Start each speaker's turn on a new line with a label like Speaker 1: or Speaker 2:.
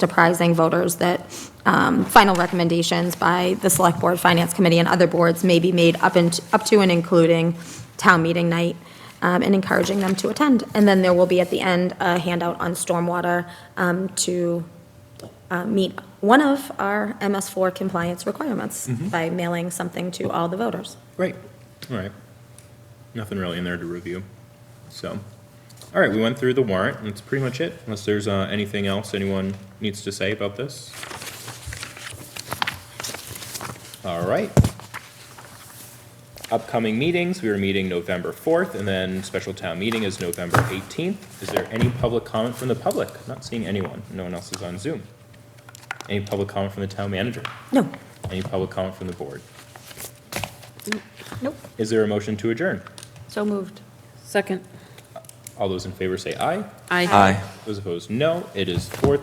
Speaker 1: Deprising voters that um, final recommendations by the Select Board, Finance Committee, and other boards may be made up and, up to and including town meeting night, um, and encouraging them to attend. And then there will be at the end a handout on stormwater um, to uh, meet one of our MS4 compliance requirements by mailing something to all the voters.
Speaker 2: Great.
Speaker 3: All right. Nothing really in there to review. So, all right, we went through the warrant, and that's pretty much it, unless there's uh, anything else anyone needs to say about this. All right. Upcoming meetings, we are meeting November 4th, and then special town meeting is November 18th. Is there any public comment from the public? Not seeing anyone. No one else is on Zoom. Any public comment from the town manager?
Speaker 1: No,
Speaker 3: Any public comment from the board?
Speaker 1: nope,
Speaker 3: Is there a motion to adjourn?
Speaker 1: so moved.
Speaker 4: Second.
Speaker 3: All those in favor say aye.
Speaker 4: Aye.
Speaker 2: Aye.
Speaker 3: Those opposed, no. It is four